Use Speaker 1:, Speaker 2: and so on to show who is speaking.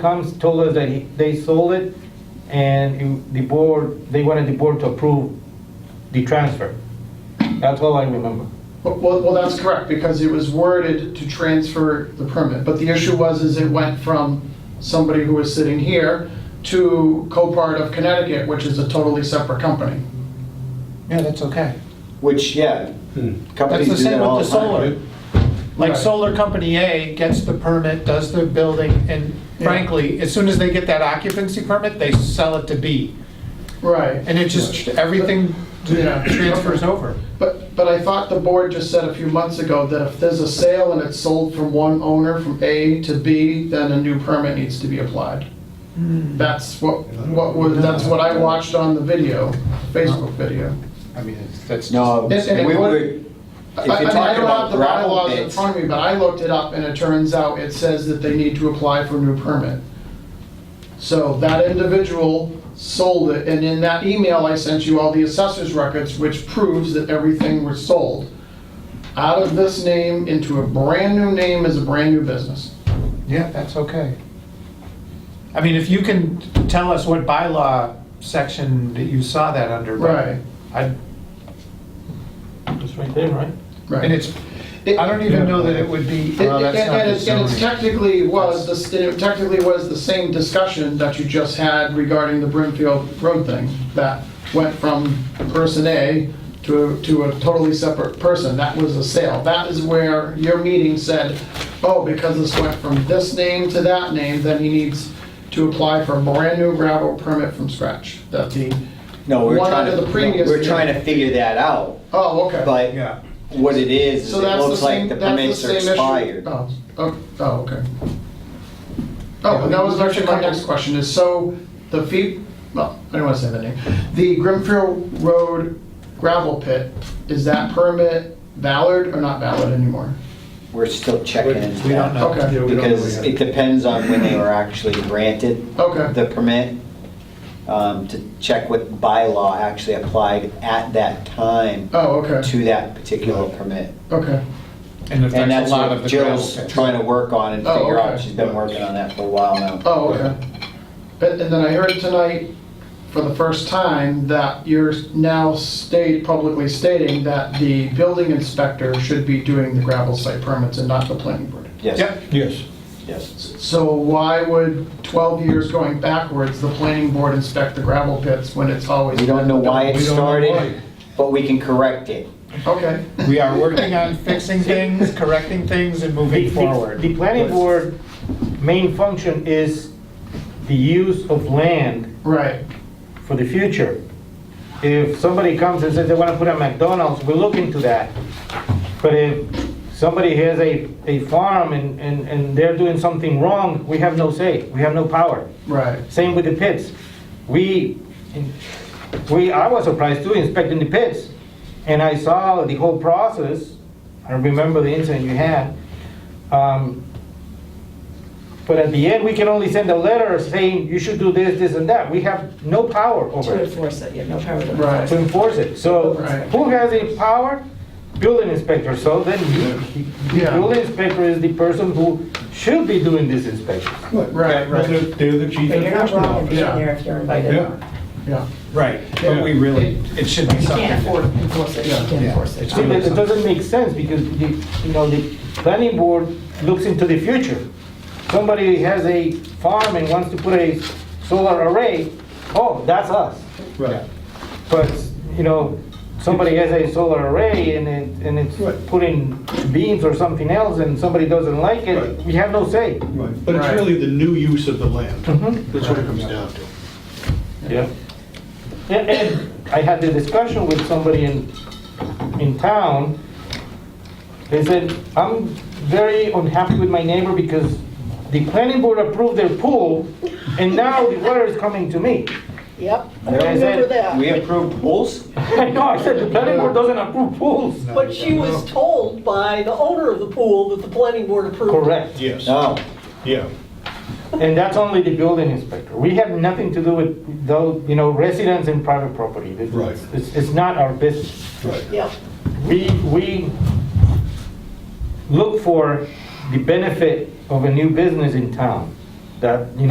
Speaker 1: comes, told us that he- they sold it, and it- the board, they wanted the board to approve the transfer. That's all I remember.
Speaker 2: Well, well, that's correct, because it was worded to transfer the permit, but the issue was, is it went from somebody who was sitting here to Copart of Connecticut, which is a totally separate company.
Speaker 3: Yeah, that's okay.
Speaker 4: Which, yeah,
Speaker 3: That's
Speaker 4: companies
Speaker 3: the
Speaker 4: do that
Speaker 3: same
Speaker 4: all
Speaker 3: with the
Speaker 4: the
Speaker 3: solar.
Speaker 4: time.
Speaker 3: Like
Speaker 2: Right.
Speaker 3: solar company A gets the permit, does the building, and frankly, as soon as they get that occupancy permit, they sell it to B.
Speaker 2: Right.
Speaker 3: And it just, everything
Speaker 2: Yeah.
Speaker 3: transfers over.
Speaker 2: But, but I thought the board just said a few months ago that if there's a sale and it's sold from one owner from A to B, then a new permit needs to be applied. That's what, what was, that's what I watched on the video, Facebook video.
Speaker 3: I mean, it's- that's.
Speaker 4: No,
Speaker 2: Yes, and
Speaker 4: we
Speaker 2: it would-
Speaker 4: were, if
Speaker 2: I I mean,
Speaker 4: you're
Speaker 2: I
Speaker 4: talking
Speaker 2: don't have
Speaker 4: about
Speaker 2: the
Speaker 4: gravel
Speaker 2: bylaws in
Speaker 4: pits,
Speaker 2: front of me, but I looked it up and it turns out it says that they need to apply for a new permit. So that individual sold it, and in that email, I sent you all the assessor's records, which proves that everything was sold. Out of this name into a brand-new name is a brand-new business.
Speaker 3: Yeah, that's okay. I mean, if you can tell us what bylaw section that you saw that under. but I,
Speaker 1: It's right there, right?
Speaker 2: Right.
Speaker 3: and it's, I don't even know that it would be,
Speaker 2: It-
Speaker 3: well,
Speaker 2: And
Speaker 3: that's not
Speaker 2: and
Speaker 3: the
Speaker 2: it and it
Speaker 3: zoning.
Speaker 2: technically was, the s- it technically was the same discussion that you just had regarding the Brimfield Road thing, that went from person A to, to a totally separate person, that was a sale. That is where your meeting said, oh, because this went from this name to that name, then he needs to apply for a brand-new gravel permit from scratch, that the,
Speaker 4: no, we we're
Speaker 2: one
Speaker 4: trying
Speaker 2: under
Speaker 4: to,
Speaker 2: the previous
Speaker 4: we we're
Speaker 2: name.
Speaker 4: trying to figure that out,
Speaker 2: oh, okay.
Speaker 4: but
Speaker 3: Yeah.
Speaker 4: what it is, is
Speaker 2: So
Speaker 4: it
Speaker 2: that's the
Speaker 4: looks
Speaker 2: same,
Speaker 4: like the
Speaker 2: that's the
Speaker 4: permits
Speaker 2: same
Speaker 4: are
Speaker 2: issue.
Speaker 4: expired.
Speaker 2: Oh, oh, oh, okay. Oh, and that was actually my next question, is so the fee, well, I don't want to say that name. The Grimfield Road gravel pit, is that permit valid or not valid anymore?
Speaker 4: We're still checking into
Speaker 3: Uh, We don't
Speaker 4: that,
Speaker 3: know.
Speaker 2: Okay,
Speaker 4: because it depends on when they were actually granted
Speaker 2: okay,
Speaker 4: the permit, um, to check what bylaw actually applied at that time
Speaker 2: oh, okay,
Speaker 4: to that particular permit.
Speaker 2: okay,
Speaker 3: And it
Speaker 4: And
Speaker 3: affects
Speaker 4: that's
Speaker 3: a lot of
Speaker 4: what
Speaker 3: the gravel
Speaker 4: Jill's
Speaker 3: pits.
Speaker 4: trying to work on and
Speaker 2: Oh,
Speaker 4: figure out,
Speaker 2: okay.
Speaker 4: she's been working on that for a while now.
Speaker 2: oh, okay. And and then I heard tonight, for the first time, that you're now state, publicly stating that the building inspector should be doing the gravel site permits and not the planning board.
Speaker 4: Yes,
Speaker 3: Yep,
Speaker 1: Yes.
Speaker 4: yes.
Speaker 2: So why would 12 years going backwards, the planning board inspect the gravel pits when it's always?
Speaker 4: We don't know why it
Speaker 3: We don't know
Speaker 4: started,
Speaker 3: why.
Speaker 4: but we can correct it.
Speaker 2: Okay,
Speaker 3: we are working on fixing things, correcting things, and
Speaker 1: The-
Speaker 3: moving
Speaker 1: the-
Speaker 3: forward.
Speaker 1: The planning board main function is the use of land
Speaker 2: right,
Speaker 1: for the future. If somebody comes and says they want to put a McDonald's, we look into that. But if somebody has a, a farm and, and, and they're doing something wrong, we have no say, we have no power.
Speaker 2: right,
Speaker 1: Same with the pits. We, we, I was surprised too inspecting the pits. And I saw the whole process. I remember the incident you had. Um, But at the end, we can only send a letter saying you should do this, this and that. We have no power over
Speaker 5: To
Speaker 1: it,
Speaker 5: enforce it, you have no power to.
Speaker 2: Right.
Speaker 1: to enforce it. So
Speaker 2: Right.
Speaker 1: who has the power? Building inspector. So then you, the
Speaker 2: Yeah.
Speaker 1: building inspector is the person who should be doing this inspection.
Speaker 2: right, right,
Speaker 6: They're the chief
Speaker 5: But you're not
Speaker 6: enforcement
Speaker 5: wrong in being
Speaker 6: officer.
Speaker 2: Yeah.
Speaker 5: there if you're invited.
Speaker 6: Yeah.
Speaker 2: yeah.
Speaker 3: Right, but we really, it should be
Speaker 5: She
Speaker 3: something.
Speaker 5: can't afford, enforce it, she can't
Speaker 3: Yeah.
Speaker 5: enforce
Speaker 3: It's
Speaker 5: it.
Speaker 1: See, but it doesn't make sense because the, you know, the planning board looks into the future. Somebody has a farm and wants to put a solar array, oh, that's us.
Speaker 6: Right.
Speaker 1: But, you know, somebody has a solar array and it, and it's
Speaker 6: Right.
Speaker 1: putting beams or something else and somebody doesn't like it,
Speaker 6: Right.
Speaker 1: we have no say.
Speaker 6: Right. But it's
Speaker 2: Right.
Speaker 6: really the new use of the land.
Speaker 3: Mm-hmm.
Speaker 1: Mhm.
Speaker 6: That's what it comes down to.
Speaker 1: Yeah. And, and I had the discussion with somebody in, in town. They said, I'm very unhappy with my neighbor because the planning board approved their pool and now the water is coming to me.
Speaker 7: Yep, I
Speaker 1: Yeah, I said,
Speaker 7: remember that.
Speaker 4: We approved pools?
Speaker 1: I know, I said, the planning board doesn't approve pools.
Speaker 7: But she was told by the owner of the pool that the planning board approved. it.
Speaker 1: Correct.
Speaker 6: Yes,
Speaker 4: No,
Speaker 6: yeah.
Speaker 1: And that's only the building inspector. We have nothing to do with those, you know, residents and private property. It's-
Speaker 6: Right.
Speaker 1: It's, it's not our business.
Speaker 6: Right.
Speaker 7: Yep,
Speaker 1: we, we look for the benefit of a new business in town, that, you know.